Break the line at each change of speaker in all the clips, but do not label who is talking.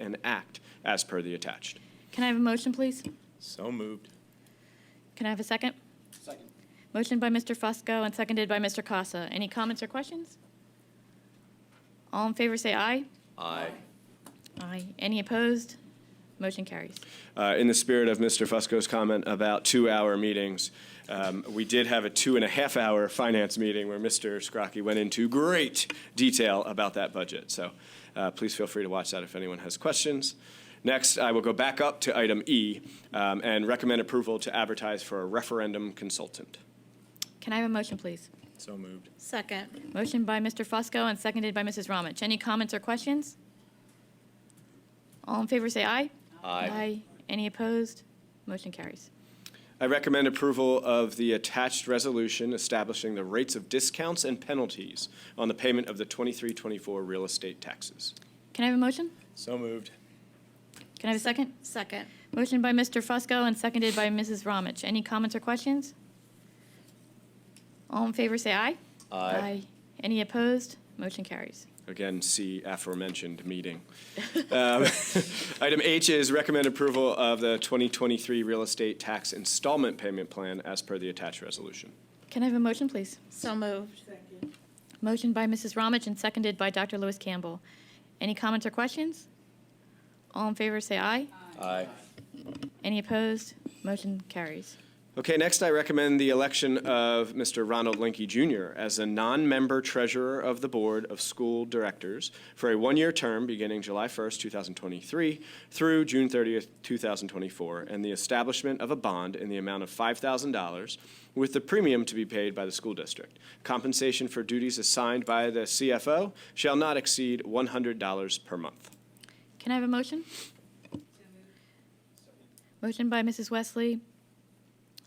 and act as per the attached.
Can I have a motion, please?
So moved.
Can I have a second? Second. Motion by Mr. Fusco and seconded by Mr. Casa. Any comments or questions? All in favor, say aye.
Aye.
Aye. Any opposed? Motion carries.
Uh, in the spirit of Mr. Fusco's comment about two-hour meetings, um, we did have a two-and-a-half-hour finance meeting where Mr. Scrocky went into great detail about that budget. So uh, please feel free to watch that if anyone has questions. Next, I will go back up to item E um, and recommend approval to advertise for a referendum consultant.
Can I have a motion, please?
So moved.
Second.
Motion by Mr. Fusco and seconded by Mrs. Ramich. Any comments or questions? All in favor, say aye. Aye. Any opposed? Motion carries.
I recommend approval of the attached resolution establishing the rates of discounts and penalties on the payment of the 2324 real estate taxes.
Can I have a motion?
So moved.
Can I have a second?
Second.
Motion by Mr. Fusco and seconded by Mrs. Ramich. Any comments or questions? All in favor, say aye. Any opposed? Motion carries.
Again, see aforementioned meeting. Um, Item H is recommend approval of the 2023 real estate tax installment payment plan as per the attached resolution.
Can I have a motion, please?
So moved.
Motion by Mrs. Ramich and seconded by Dr. Lewis Campbell. Any comments or questions? All in favor, say aye.
Aye.
Any opposed? Motion carries.
Okay, next I recommend the election of Mr. Ronald Linky Jr. as a non-member treasurer of the Board of School Directors for a one-year term beginning July 1st, 2023 through June 30th, 2024, and the establishment of a bond in the amount of $5,000 with the premium to be paid by the school district. Compensation for duties assigned by the CFO shall not exceed $100 per month.
Can I have a motion? Motion by Mrs. Wesley,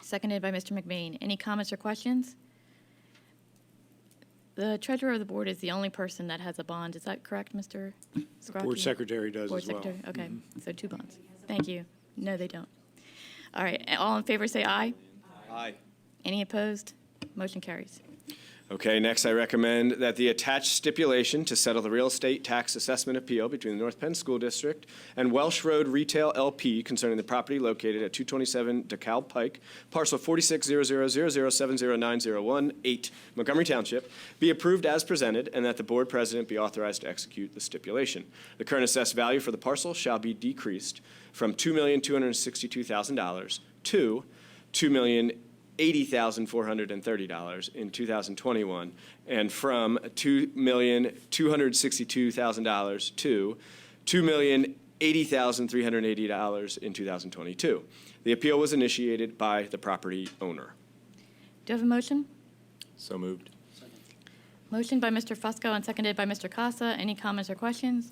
seconded by Mr. McBain. Any comments or questions? The treasurer of the board is the only person that has a bond. Is that correct, Mr. Scrocky?
Board secretary does
Board
as well. Mm-hmm.
secretary, okay. So two bonds. Thank you. No, they don't. All right, all in favor, say aye.
Aye.
Any opposed? Motion carries.
Okay, next I recommend that the attached stipulation to settle the real estate tax assessment appeal between the North Penn School District and Welsh Road Retail LP concerning the property located at 227 DeKalb Pike, parcel 460000709018, Montgomery Township, be approved as presented and that the board president be authorized to execute the stipulation. The current assessed value for the parcel shall be decreased from $2,262,000 to $2,080,430 in 2021, and from $2,262,000 to $2,080,380 in 2022. The appeal was initiated by the property owner.
Do you have a motion?
So moved.
Motion by Mr. Fusco and seconded by Mr. Casa. Any comments or questions?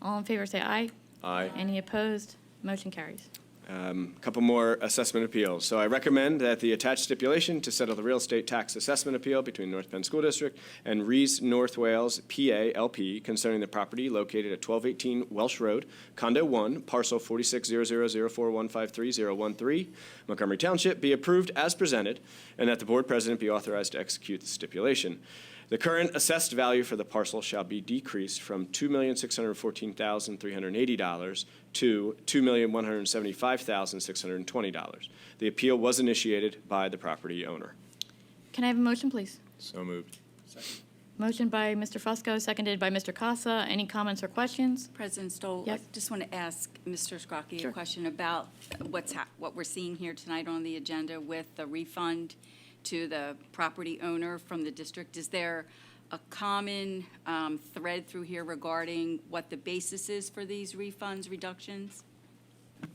All in favor, say aye.
Aye.
Any opposed? Motion carries.
Um, Couple more assessment appeals. So I recommend that the attached stipulation to settle the real estate tax assessment appeal between North Penn School District and Rees North Wales PA LP concerning the property located at 1218 Welsh Road, Condo 1, parcel 460004153013, Montgomery Township, be approved as presented, and that the board president be authorized to execute the stipulation. The current assessed value for the parcel shall be decreased from $2,614,380 to $2,175,620. The appeal was initiated by the property owner.
Can I have a motion, please?
So moved.
Motion by Mr. Fusco, seconded by Mr. Casa. Any comments or questions?
President Stoll?
Yes.
I just want to ask Mr. Scrocky
Sure.
a question about what's, hap- what we're seeing here tonight on the agenda with the refund to the property owner from the district. Is there a common um, thread through here regarding what the basis is for these refunds, reductions?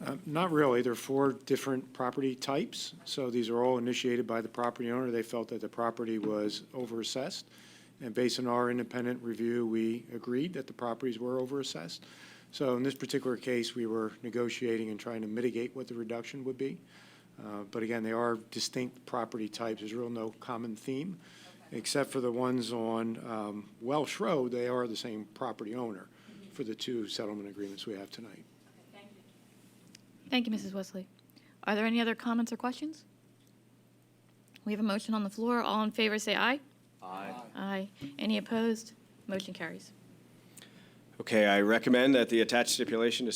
Uh, Not really. There are four different property types, so these are all initiated by the property owner. They felt that the property was overassessed, and based on our independent review, we agreed that the properties were overassessed. So in this particular case, we were negotiating and trying to mitigate what the reduction would be. Uh, But again, they are distinct property types. There's real no common theme, except for the ones on um, Welsh Road, they are the same property owner for the two settlement agreements we have tonight.
Thank you, Mrs. Wesley. Are there any other comments or questions? We have a motion on the floor. All in favor, say aye. Aye. Aye. Any opposed? Motion carries.
Okay, I recommend that the attached stipulation to